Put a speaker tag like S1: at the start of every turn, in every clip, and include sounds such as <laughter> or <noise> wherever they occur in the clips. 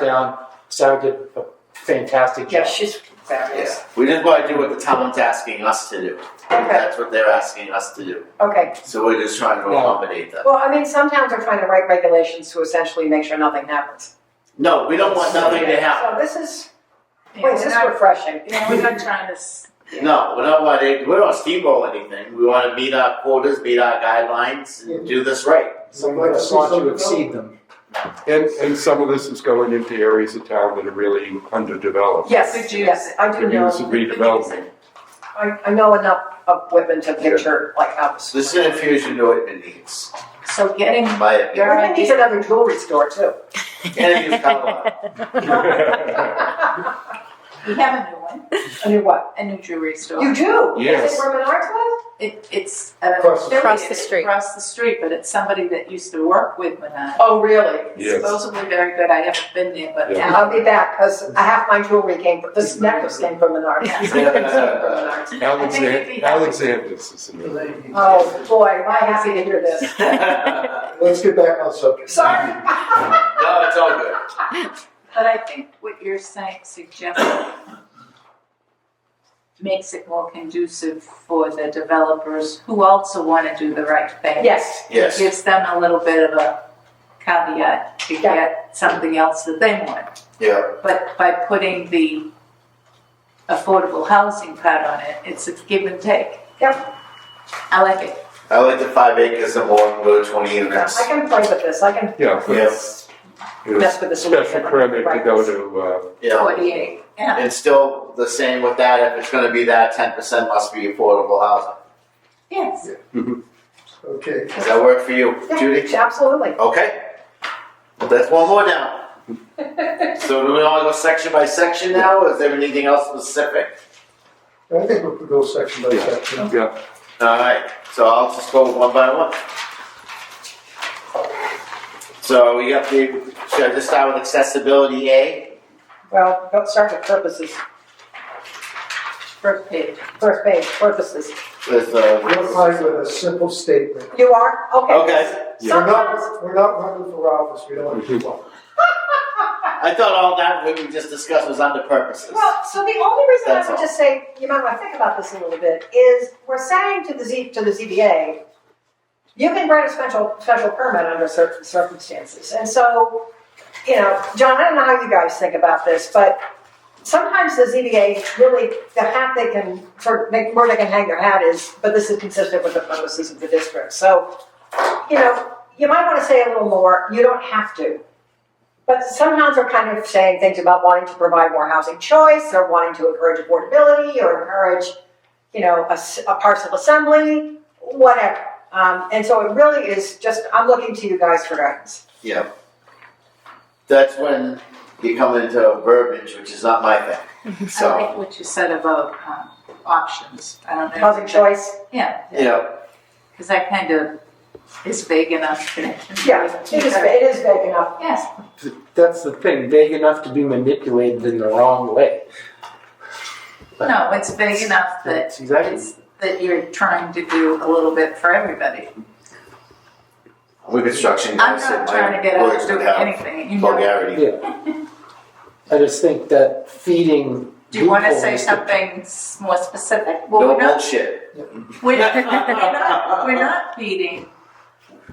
S1: down. Sarah did a fantastic
S2: Yeah,
S1: job.
S2: she's fabulous.
S3: We just want to do what the town's asking us to do.
S2: Okay,
S3: That's what they're asking us to do.
S2: okay.
S3: So we're just trying to
S1: Yeah.
S3: accommodate them.
S2: Well, I mean, some towns are trying to write regulations to essentially make sure nothing happens.
S3: No, we don't want nothing to happen.
S2: So this is,
S4: Yeah,
S2: wait,
S4: we're
S2: this is
S4: not- <laughs>
S2: refreshing.
S4: Yeah, we're not trying to, s-
S3: No, we don't want to, we don't steamroll anything. We want to meet our quotas, meet our guidelines, and do this right.
S1: Some of us want to exceed them.
S5: And, and some of this is going into areas of town that are really
S4: <laughs>
S5: underdeveloped.
S2: Yes,
S4: Could use
S2: yes, I do
S5: Could use
S2: know,
S5: redevelopment.
S2: I, I know enough of Whitman to picture like how this.
S3: So this is an infusion to what it needs,
S4: so getting,
S3: in my
S2: <laughs>
S3: opinion.
S4: You're
S2: Whitman
S4: right.
S2: needs another jewelry store too.
S3: And you come on.
S2: A
S4: we have a new one,
S2: new what?
S4: a new jewelry store.
S2: You do? Is
S5: Yes.
S2: it where Menards was?
S4: It, it's. uh,
S1: Across the-
S6: Across the
S4: affiliated
S6: street.
S4: Across the street, but it's somebody that used to work with Manon.
S2: Oh, really?
S5: Yes.
S4: Supposedly very good, I haven't been there, but
S5: Yeah.
S4: now.
S2: I'll be back, cause half my jewelry came, from this necklace came from Menards.
S4: Yeah.
S2: This necklace came from
S3: <laughs>
S2: Menards.
S4: I think it'd
S5: Alexander,
S4: be helpful.
S5: Alexander's is another. one.
S2: Oh, boy, am I happy to hear this.
S1: Let's get back on subject.
S2: Sorry.
S3: <laughs>
S2: <laughs>
S3: No, it's all good.
S4: But I think what you're saying, suggesting makes it more conducive for the developers who also want to do the right thing.
S2: Yes,
S3: Yes.
S4: Gives them a little bit of a caveat to
S2: Yeah.
S4: get something else that they want.
S3: Yeah.
S4: But by putting the affordable housing part on it, it's a give and take.
S2: Yep.
S4: I like it.
S3: I like the five acres and one, go to twenty units.
S2: I can play with this, I can
S5: Yeah, but
S3: Yes.
S5: it was
S2: mess with this a little bit.
S5: special permit to go to, uh,
S3: Yeah.
S4: Forty-eight, yeah.
S3: And still the same with that, if it's gonna be that, ten percent must be affordable housing.
S4: Yes.
S1: Okay.
S3: Does that work for you,
S2: Yeah,
S3: Judy?
S2: Absolutely.
S3: Okay. Well, That's one more down. So do we all go section by section now, or is there anything else specific?
S1: I think we'll go section by
S5: Yeah.
S1: section.
S5: uh, yeah,
S3: Alright, so I'll just go one by one. So we got the, should I just start with accessibility A?
S2: Well, don't start with purposes,
S4: First page.
S2: first page, purposes.
S3: With, uh,
S1: We're fine with a simple statement.
S2: You are? Okay.
S3: Okay.
S1: We're
S2: Sometimes,
S1: not, we're not running for office, we don't do one.
S3: I thought all that we just discussed was under purposes.
S2: well, so the only reason I
S3: That's
S2: would
S3: all.
S2: just say, you might want to think about this a little bit, is we're saying to the Z, to the ZBA, you can grant a special, special permit under certain circumstances. And so, you know, John, I don't know how you guys think about this, but sometimes the ZBA really, the hat they can, for, they- where they can hang their hat is, but this is consistent with the purposes of the district. So, you know, you might want to say a little more, you don't have to. But some towns are kind of saying things about wanting to provide more housing choice, or wanting to encourage affordability, or encourage, you know, a, s- a parcel assembly, whatever. Um, and so it really is just, I'm looking to you guys for guidance.
S3: Yeah. That's when you come into verbiage, which is not my thing.
S4: I
S3: So,
S4: like what you said about um, options. I don't know.
S2: Housing choice,
S4: Yeah,
S3: you know,
S4: because that kind of is vague enough. that it can be-
S2: yeah, it is, it is vague enough.
S4: Yes,
S1: That's the thing, vague enough to be manipulated in the wrong way.
S4: no, it's vague enough that
S1: That's exactly.
S4: it's, that you're trying to do a little bit for everybody.
S3: with construction,
S4: I'm
S3: guys,
S4: not
S3: it
S4: trying to
S3: might
S4: get out
S3: work
S4: of doing
S3: without
S4: anything, you know.
S3: vulgarity.
S1: Yeah. I just think that feeding.
S4: Do you want to
S1: loopholes
S4: say
S1: to-
S4: something s- more specific? Well,
S3: No
S4: we're not,
S3: bullshit.
S4: we're not, we're
S1: <laughs>
S4: not, we're not beating,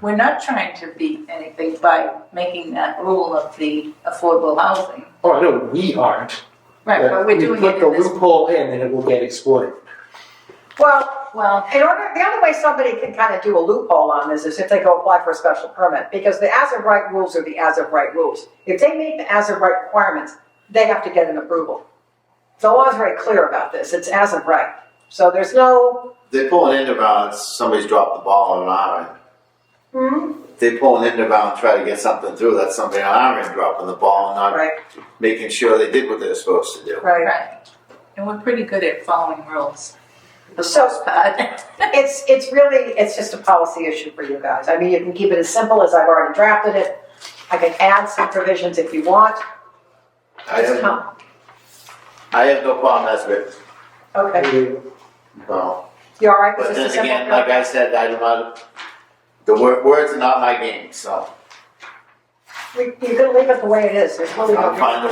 S4: we're not trying to beat anything by making that rule of the affordable housing.
S1: Oh, I know, we aren't.
S4: Right, but we're
S1: We
S4: doing it in
S1: Put the
S4: this,
S1: loophole in and it will get exploited.
S2: Well,
S4: well,
S2: In order, the only way somebody can kind of do a loophole on this is if they go apply for a special permit, because the as of right rules are the as of right rules. If they meet the as of right requirements, they have to get an approval. The law is very clear about this, it's as of right. So there's no,
S3: They pull an end around, somebody's dropped the ball on an iron.
S2: hmm,
S3: They pull an end around, try to get something through, that's something on iron, dropping the ball and not
S2: right,
S3: making sure they did what they were supposed to do.
S2: right.
S4: Right. And we're pretty good at following rules. The
S2: So-
S4: most part.
S2: It's, it's really, it's just a policy issue for you guys. I mean, you can keep it as simple as I've already drafted it. I can add some provisions if you want,
S3: I
S2: just
S3: have,
S2: come.
S3: I have no problem as written,
S2: Okay,
S3: no.
S2: you all right with
S3: But
S2: just a
S3: then
S2: simple?
S3: again, like I said, I do not, the wor- words are not my game, so.
S2: we, you can leave it the way it is, there's really no.
S3: I'm fine with